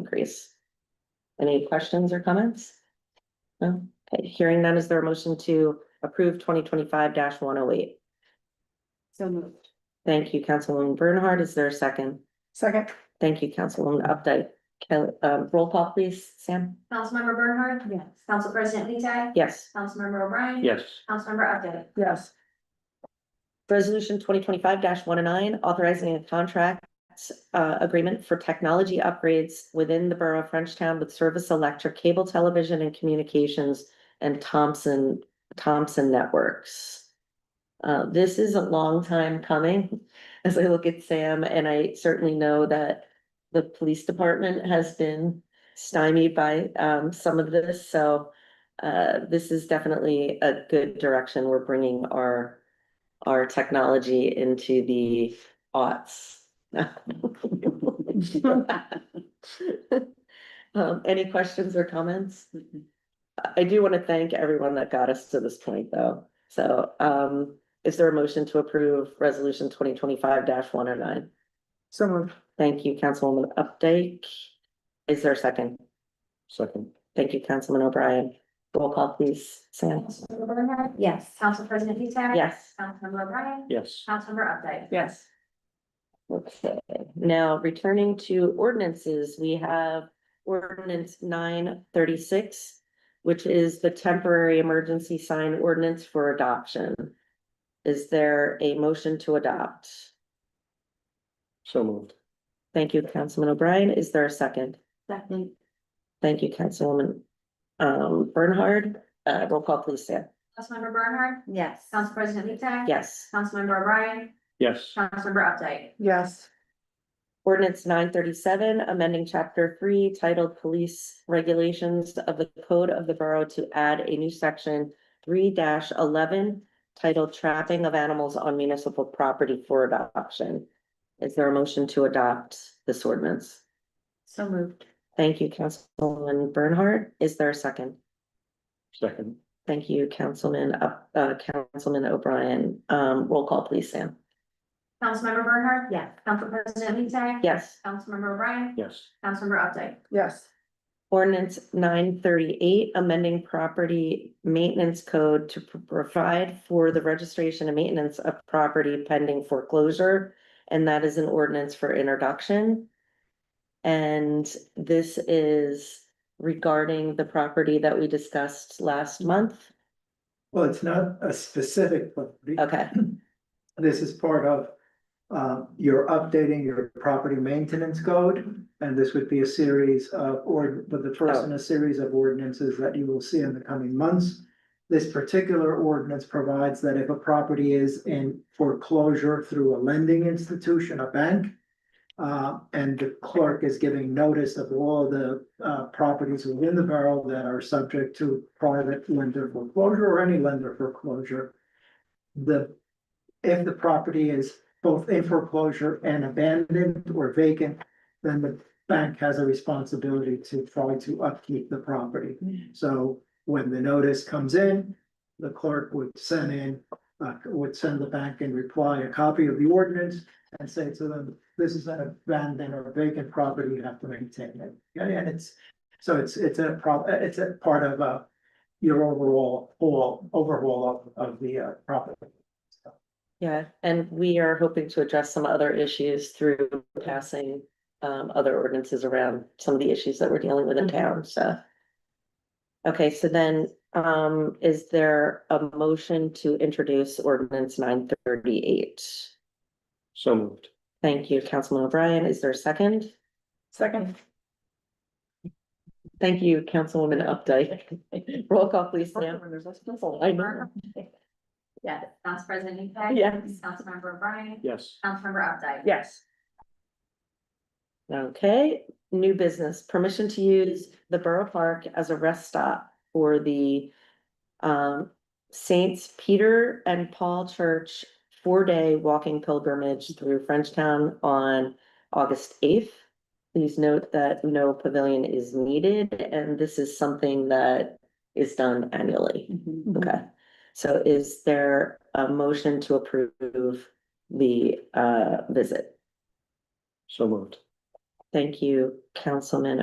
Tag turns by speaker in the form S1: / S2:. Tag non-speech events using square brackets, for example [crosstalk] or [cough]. S1: increase. Any questions or comments? No, okay, hearing none, is there a motion to approve twenty twenty-five one oh eight?
S2: So moved.
S1: Thank you, Councilwoman Bernhardt. Is there a second?
S2: Second.
S1: Thank you, Councilwoman Updike. Kelly, uh, roll call please, Sam?
S3: Councilmember Bernhardt?
S2: Yes.
S3: Council President Lee Tag?
S1: Yes.
S3: Councilmember O'Brien?
S4: Yes,
S3: Councilmember Updike?
S2: Yes.
S1: Resolution twenty twenty-five one oh nine, authorizing a contract uh, agreement for technology upgrades within the borough of Frenchtown with Service Electric Cable Television and Communications and Thompson, Thompson Networks. Uh, This is a long time coming, [laughs] as I look at Sam, and I certainly know that the police department has been stymied by um, some of this, so uh, this is definitely a good direction. We're bringing our our technology into the aughts. Um, any questions or comments? I do want to thank everyone that got us to this point, though. So, um, is there a motion to approve resolution twenty twenty-five one oh nine?
S2: So moved.
S1: Thank you, Councilwoman Updike. Is there a second?
S4: second,
S1: Thank you, Councilman O'Brien. Roll call, please. Sam?
S3: Councilmember Bernhardt?
S2: Yes.
S3: Council President Lee Tag?
S1: Yes.
S3: Councilmember O'Brien?
S4: yes,
S3: Councilmember Updike?
S2: Yes.
S1: Okay, now returning to ordinances, we have ordinance nine thirty-six, which is the temporary emergency sign ordinance for adoption. Is there a motion to adopt?
S4: so moved,
S1: Thank you, Councilman O'Brien. Is there a second?
S2: Second.
S1: Thank you, Councilwoman um Bernhard. Uh, roll call please, Sam.
S3: Councilmember Bernhardt?
S2: Yes.
S3: Council President Lee Tag?
S1: Yes.
S3: Councilmember O'Brien?
S4: yes,
S3: Councilmember Updike?
S2: Yes.
S1: Ordinance nine thirty-seven, amending chapter three titled Police Regulations of the Code of the Borough to add a new section three eleven titled Trapping of Animals on Municipal Property for Adoption. Is there a motion to adopt this ordinance?
S2: So moved.
S1: Thank you, Councilman Bernhardt. Is there a second?
S4: second,
S1: Thank you, Councilman, Up- uh, Councilman O'Brien. Um, roll call please, Sam.
S3: Councilmember Bernhardt?
S2: Yes.
S3: Council President Lee Tag?
S1: Yes.
S3: Councilmember O'Brien?
S4: yes,
S3: Councilmember Updike?
S2: Yes.
S1: Ordinance nine thirty-eight, amending property maintenance code to pr- provide for the registration and maintenance of property pending foreclosure. And that is an ordinance for introduction. And this is regarding the property that we discussed last month.
S5: Well, it's not a specific property.
S1: Okay,
S5: This is part of, uh, you're updating your property maintenance code. And this would be a series of, or, but the first in a series of ordinances that you will see in the coming months. This particular ordinance provides that if a property is in foreclosure through a lending institution, a bank. Uh, and the clerk is giving notice of all the, uh, properties within the borough that are subject to private lender foreclosure or any lender foreclosure. The, if the property is both in foreclosure and abandoned or vacant, then the bank has a responsibility to try to upkeep the property. So when the notice comes in, the clerk would send in, uh, would send the bank in reply a copy of the ordinance and say to them, this is an abandoned or vacant property, you have to maintain it. Yeah, and it's, so it's, it's a prob, it's a part of, uh, your overall, all, overhaul of, of the, uh, property.
S1: yeah, and we are hoping to address some other issues through passing um other ordinances around some of the issues that we're dealing with in town, so. Okay, so then, um, is there a motion to introduce ordinance nine thirty-eight?
S4: so moved,
S1: Thank you, Councilman O'Brien. Is there a second?
S2: Second.
S1: Thank you, Councilwoman Updike. [laughs] Roll call, please, Sam. I know.
S3: Yes. Council President Lee Tag?
S1: Yes.
S3: Councilmember O'Brien?
S4: yes,
S3: Councilmember Updike?
S2: Yes.
S1: Okay, new business, permission to use the Borough Park as a rest stop for the um Saints Peter and Paul Church four-day walking pilgrimage through Frenchtown on August eighth. Please note that no pavilion is needed, and this is something that is done annually.
S2: Mm-hmm.
S1: Okay, so is there a motion to approve the uh visit?
S4: so moved.
S1: Thank you, Councilman